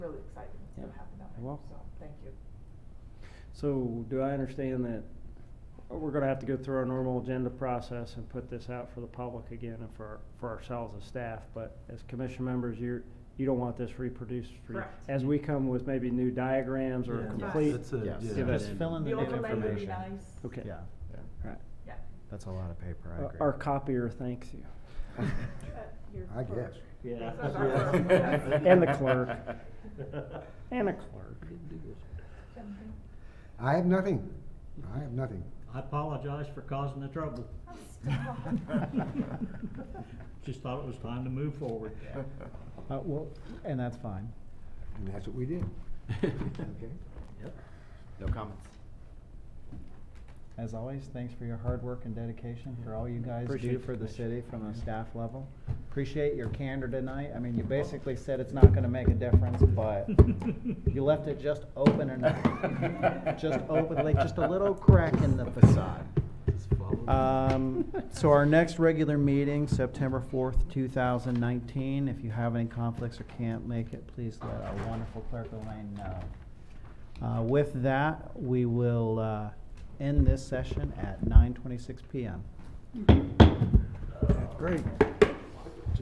really exciting to Yeah. happen that You're way, welcome. so, thank you. So do I understand that we're gonna have to go through our normal agenda process and put this out for the public again and for, for ourselves as staff? But as commission members, you're, you don't want this reproduced for you? Correct. As we come with maybe new diagrams or Yeah, complete? that's a- Yes, yeah. just fill in the The new overlay would be information. nice. Okay. Yeah, All right. Yeah. that's a lot of paper, I Our- agree. Our copier thanks you. I guess. Yeah. And the clerk. And a clerk. I have nothing. I have nothing. I apologize for causing the trouble. Just thought it was time to move forward. Uh, well, and that's fine. And that's what we did. Okay? No comments. As always, thanks for your hard work and dedication, for all you guys Appreciate do the for the commission. city from a staff level. Appreciate your candor tonight. I mean, you basically said it's not gonna make a difference, but you left it just open enough. Just open, like, just a little crack in the facade. Um, so our next regular meeting, September fourth, two thousand nineteen. If you have any conflicts or can't make it, please let our wonderful clerk Elaine know. Uh, with that, we will, uh, end this session at nine twenty-six PM. Great.